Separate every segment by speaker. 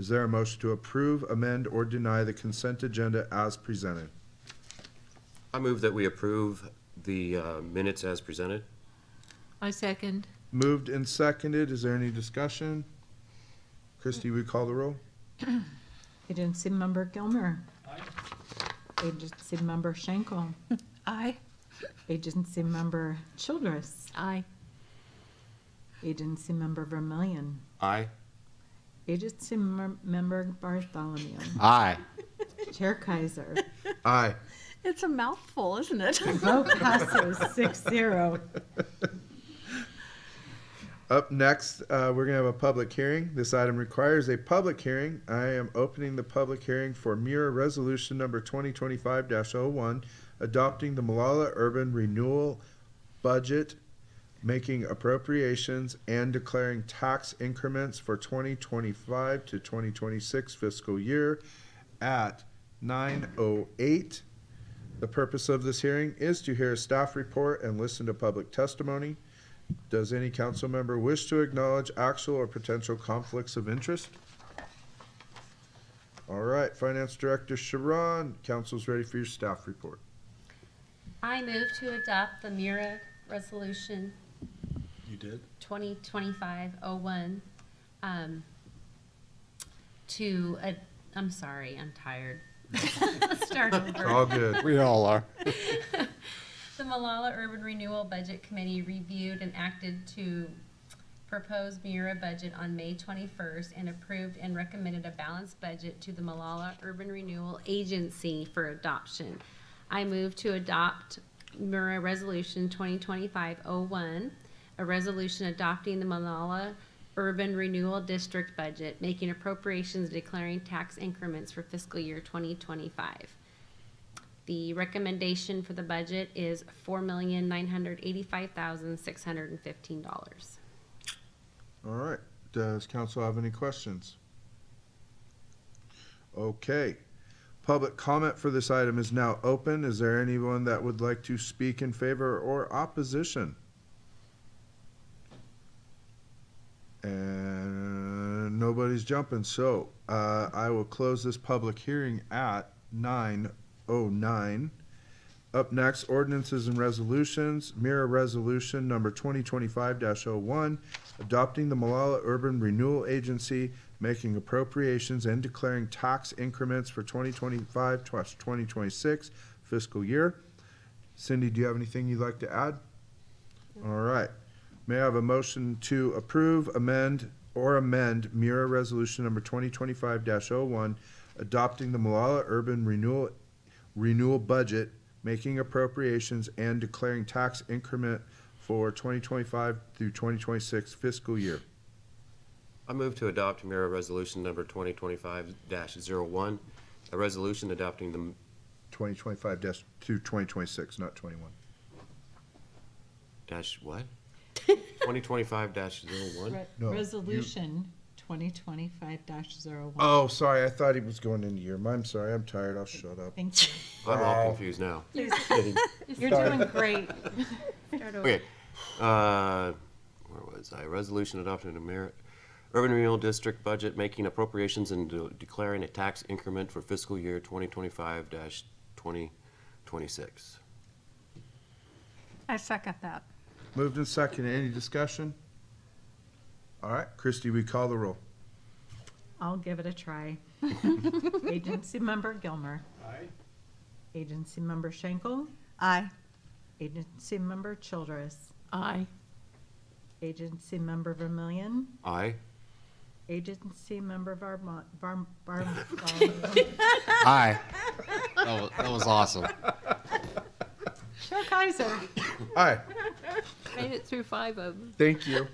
Speaker 1: Is there a motion to approve, amend, or deny the consent agenda as presented?
Speaker 2: I move that we approve the uh, minutes as presented.
Speaker 3: I second.
Speaker 1: Moved and seconded, is there any discussion? Christie, we call the roll?
Speaker 4: Agency Member Gilmer. Agency Member Schenkel.
Speaker 3: Aye.
Speaker 4: Agency Member Childress.
Speaker 3: Aye.
Speaker 4: Agency Member Vermillion.
Speaker 2: Aye.
Speaker 4: Agency Mer- Member Bartholomew.
Speaker 2: Aye.
Speaker 4: Chair Kaiser.
Speaker 1: Aye.
Speaker 3: It's a mouthful, isn't it?
Speaker 4: Vote passes six zero.
Speaker 1: Up next, uh, we're gonna have a public hearing. This item requires a public hearing. I am opening the public hearing for Mira Resolution Number twenty twenty-five oh one adopting the Malala Urban Renewal Budget, making appropriations and declaring tax increments for twenty twenty-five to twenty twenty-six fiscal year at nine oh eight. The purpose of this hearing is to hear a staff report and listen to public testimony. Does any council member wish to acknowledge actual or potential conflicts of interest? All right, Finance Director Sharon, council's ready for your staff report.
Speaker 5: I move to adopt the MIRA Resolution. You did? 2025-01, um, to, ad- I'm sorry, I'm tired. Let's Start over.
Speaker 1: All good.
Speaker 6: We all are.
Speaker 5: The Malala Urban Renewal Budget Committee reviewed and acted to propose Mira budget on May 21st and approved and recommended a balanced budget to the Malala Urban Renewal Agency for adoption. I move to adopt Mira Resolution 2025-01, a resolution adopting the Malala Urban Renewal District budget, making appropriations, and declaring tax increments for fiscal year 2025. The recommendation for the budget is four million nine hundred eighty-five thousand six hundred and fifteen dollars.
Speaker 1: All right, does council have any questions? Okay, public comment for this item is now open. Is there anyone that would like to speak in favor or opposition? And nobody's jumping, so uh, I will close this public hearing at nine oh nine. Up next, ordinances and resolutions. Mira Resolution Number twenty twenty-five oh one adopting the Malala Urban Renewal Agency, making appropriations and declaring tax increments for 2025 twenty twenty-six fiscal year. Cindy, do you have anything you'd like to add? All right. May I have a motion to approve, amend, or amend Mira Resolution Number twenty twenty-five one adopting the Malala Urban Renewal, Renewal Budget, making appropriations and declaring tax increment for 2025 through 2026 fiscal year.
Speaker 2: I move to adopt Mira Resolution Number 2025-01, a resolution adopting the,
Speaker 1: 2025 dash to 2026, not 21.
Speaker 2: dash, what? 2025-01?
Speaker 1: No, you-
Speaker 4: Resolution twenty twenty-five dash zero one.
Speaker 1: Oh, sorry, I thought he was going into your, I'm sorry, I'm tired, I'll shut up.
Speaker 4: Thank you.
Speaker 2: I'm all confused now.
Speaker 4: You're doing great.
Speaker 2: Okay, uh, where was I? Resolution adopting the Mira Urban Renewal District budget, making appropriations and de- declaring a tax increment for fiscal year 2025-2026.
Speaker 3: I second that.
Speaker 1: Moved and second, any discussion? All right, Christie, we call the roll.
Speaker 4: I'll give it a try. Agency Member Gilmer. Aye. Agency Member Schenkel.
Speaker 3: Aye.
Speaker 4: Agency Member Childress.
Speaker 3: Aye.
Speaker 4: Agency Member Vermillion.
Speaker 2: Aye.
Speaker 4: Agency Member Varmont, Varm, Varm,
Speaker 6: Aye. That was, that was awesome.
Speaker 4: Chair Kaiser.
Speaker 1: Aye,
Speaker 3: Made it through five of them.
Speaker 1: thank you.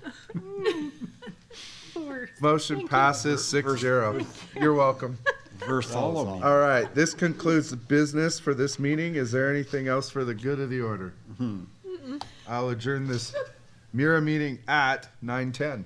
Speaker 1: Motion passes six zero. You're welcome.
Speaker 6: Versalme.
Speaker 1: All right, this concludes the business for this meeting. Is there anything else for the good of the Mm-hmm. order? I'll adjourn this Mira meeting at nine ten.